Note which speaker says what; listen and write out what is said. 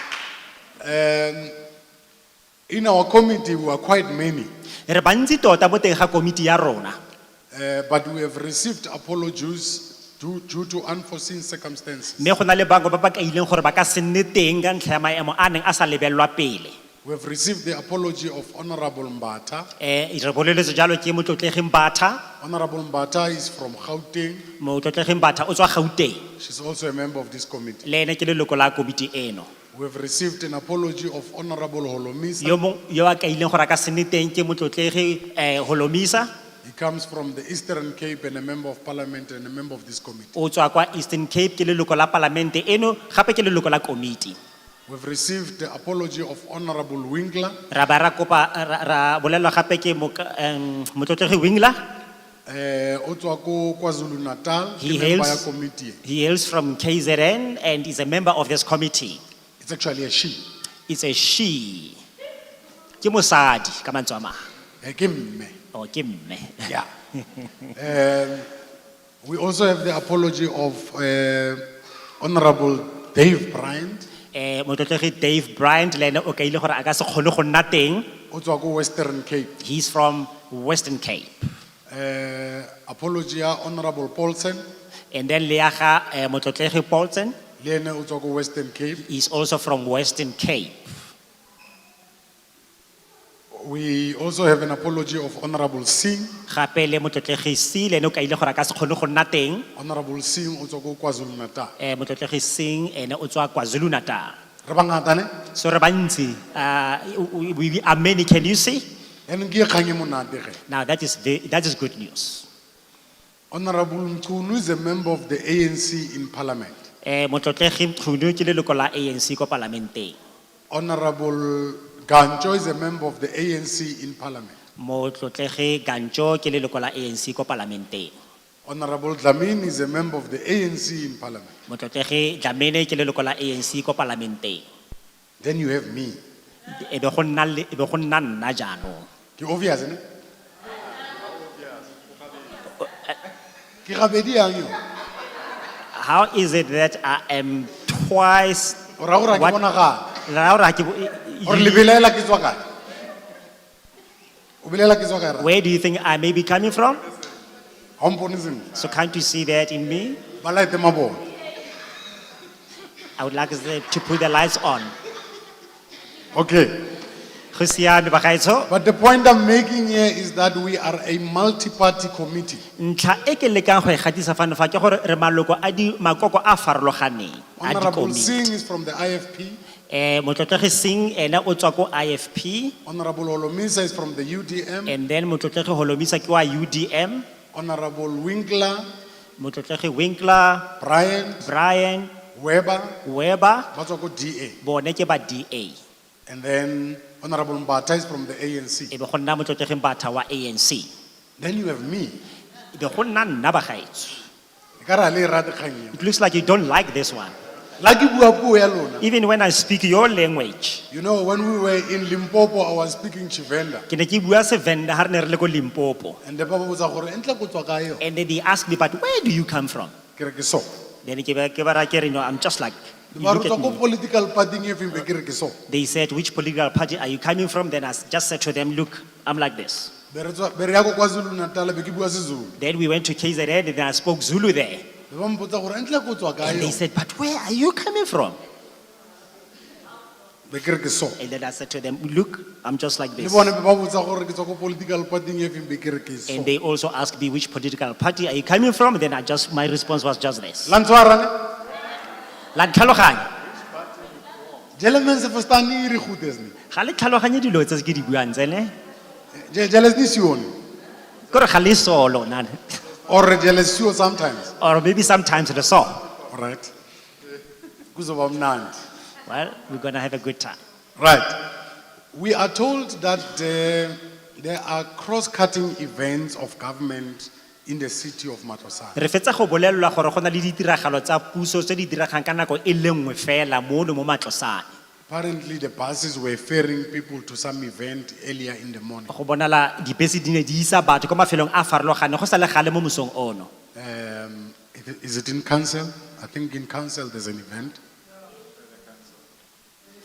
Speaker 1: Um, in our committee, we are quite many,
Speaker 2: Re bantsi tota mo teng ga komiti ya rona.
Speaker 1: uh, but we have received apologies due, due to unforeseen circumstances.
Speaker 2: Mme go na le bangwe ba ba kaileng gore ba ka se nne teng ka ntlha ya maemo a neng a sa lebellwa pele.
Speaker 1: We have received the apology of Honorable Mbata.
Speaker 2: Eh, re boleletswe jalo ke motlotlegi Mbatha,
Speaker 1: Honorable Mbata is from Gauteng.
Speaker 2: motlotlegi Mbatha o tswa Gauteng,
Speaker 1: She's also a member of this committee.
Speaker 2: le ene ke leloko la komiti eno.
Speaker 1: We have received an apology of Honorable Holomisa.
Speaker 2: Yo mong yo a kaileng gore a ka se nne teng ke motlotlegi eh Holomisa,
Speaker 1: He comes from the Eastern Cape and a member of parliament and a member of this committee.
Speaker 2: o tswa kwa Eastern Cape ke leloko la palamente eno, gape ke leloko la komiti.
Speaker 1: We have received the apology of Honorable Winkler.
Speaker 2: Ra ba ra kopa ra- ra bolelwa gape ke moka- em, motlotlegi Wingler,
Speaker 1: Eh, Otuako KwaZulu Natal,
Speaker 2: He
Speaker 1: member
Speaker 2: hails-
Speaker 1: ya committee.
Speaker 2: he hails from KZN and is a member of this committee.
Speaker 1: It's actually a she.
Speaker 2: It's a she. Ke mosadi ka mantswe a mang.
Speaker 1: Eh, ke mme.
Speaker 2: Oh, ke mme.
Speaker 1: Yeah. Um, we also have the apology of eh, Honorable Dave Bryant.
Speaker 2: Eh motlotlegi Dave Bryant le ene o kaile gore a ka se kgone go nna teng.
Speaker 1: Otuako Western Cape.
Speaker 2: He's from Western Cape.
Speaker 1: Eh, apology ya Honorable Paulsen,
Speaker 2: And then le ya ga eh, motlotlegi Paulson
Speaker 1: le ene o tswa ko Western Cape.
Speaker 2: is also from Western Cape.
Speaker 1: We also have an apology of Honorable Singh.
Speaker 2: Gape le motlotlegi C le ene o kaile gore a ka se kgone go nna teng.
Speaker 1: Honorable Singh o tswa ko KwaZulu Natal.
Speaker 2: Eh motlotlegi Singh ene o tswa KwaZulu Natal.
Speaker 1: Re bangata ne?
Speaker 2: So re bantsi, uh, we, we are many, can you see?
Speaker 1: Yanong ke e kgang e monate ge.
Speaker 2: Now that is, ve- that is good news.
Speaker 1: Honorable Mchunu is a member of the ANC in Parliament.
Speaker 2: Eh, motlotlegi Mkhunu ke leloko la ANC ko parlamenteng.
Speaker 1: Honorable Gancho is a member of the ANC in Parliament.
Speaker 2: Motlotlegi Gancho ke leloko la ANC ko parlamenteng.
Speaker 1: Honorable Dlamini is a member of the ANC in Parliament.
Speaker 2: Motlotlegi Dlamini ke leloko la ANC ko parlamenteng.
Speaker 1: Then you have me.
Speaker 2: E be go nna le- e be go nna nna jaanong.
Speaker 1: Ke obvious ne? Ke gabedi yang yo?
Speaker 2: How is it that I am twice?
Speaker 1: O ra gore ha ke
Speaker 2: what-
Speaker 1: bonagale.
Speaker 2: Ra gore ha ke bo- e-
Speaker 1: Gore
Speaker 2: e-
Speaker 1: le belaela ke tswa kae? O belaela ke tswa kae ra?
Speaker 2: Where do you think I may be coming from?
Speaker 1: Ha o mpone sentle.
Speaker 2: So can't you see that in me?
Speaker 1: Ba laete mabone.
Speaker 2: I would like them to put the lights on.
Speaker 1: Okay.
Speaker 2: Go siame bagaetsho.
Speaker 1: But the point I'm making here is that we are a multi-party committee.
Speaker 2: Ntlha e ke lekang go e gatisa fano fa ke gore re maloko a di makoko a farologaneng a
Speaker 1: Honorable
Speaker 2: dikomiti.
Speaker 1: Singh is from the IFP.
Speaker 2: Eh motlotlegi Singh ene o tswa ko IFP
Speaker 1: Honorable Olomisa is from the UDM.
Speaker 2: and then motlotlegi Holomisa ke wa UDM,
Speaker 1: Honorable Winkler,
Speaker 2: motlotlegi Winkler,
Speaker 1: Brian,
Speaker 2: Brian,
Speaker 1: Weber,
Speaker 2: Weber
Speaker 1: Batswako DA.
Speaker 2: bone ke ba DA.
Speaker 1: And then Honorable Mbata is from the ANC.
Speaker 2: E be go nna motlotlegi Mbatha wa ANC.
Speaker 1: Then you have me.
Speaker 2: E be go nna nna bagaetsho.
Speaker 1: Ekare ha le e rate kgang eo.
Speaker 2: It looks like you don't like this one.
Speaker 1: La ke bua puo ya lona.
Speaker 2: Even when I speak your language.
Speaker 1: You know, when we were in Limpopo, I was speaking Chivenda.
Speaker 2: Ke ne ke bua Sevenda ha re ne re le ko Limpopo.
Speaker 1: And the Bible was gore entle go tswa kae yo?"
Speaker 2: And then they asked me, but where do you come from?
Speaker 1: Ke re ke so.
Speaker 2: Then ke ba- ke ba ra ke re, no, I'm just like, you
Speaker 1: Ba re
Speaker 2: look
Speaker 1: tswa
Speaker 2: at
Speaker 1: ko
Speaker 2: me.
Speaker 1: political party-ing e feng be ke re ke so.
Speaker 2: They said, which political party are you coming from? Then I s- just said to them, look, I'm like this.
Speaker 1: Be re tswa- be re ya ko KwaZulu Natal be ke bua seZulu.
Speaker 2: Then we went to KZN and I spoke Zulu there.
Speaker 1: Be ba mpotsa gore entle go tswa kae
Speaker 2: And they
Speaker 1: yo?"
Speaker 2: said, but where are you coming from?
Speaker 1: Be ke re ke so.
Speaker 2: And then I said to them, look, I'm just like
Speaker 1: le
Speaker 2: this.
Speaker 1: bone ba botsa gore ke tswa ko political party-ing e feng be ke re ke so
Speaker 2: And they also asked me, which political party are you coming from? Then I just, my response was just this.
Speaker 1: la ntshwara ne
Speaker 2: La ntlhaloganya.
Speaker 1: jele mensefostane e re gutesne
Speaker 2: Ga le tlhaloganye dilo tse ke di buang tse ne?
Speaker 1: jele sne sione
Speaker 2: Ke gore ga le so lona.
Speaker 1: or jele sio sometimes
Speaker 2: Or maybe sometimes le so.
Speaker 1: right kuzoba mnandi
Speaker 2: Well, we're going to have a good time.
Speaker 1: right we are told that uh, there are cross-cutting events of government in the city of matosana
Speaker 2: re fetsa go bolelelwa gore go na le ditiragalo tsa puso tse di diragang ka nako e le nngwe fela mono mo matlosane
Speaker 1: apparently the buses were ferrying people to some event earlier in the morning
Speaker 2: go bonala dibese di ne di isa batho kwa mafelong a a farologaneng go sa le gale mo mosong ono
Speaker 1: um, it- is it in council i think in council there's an event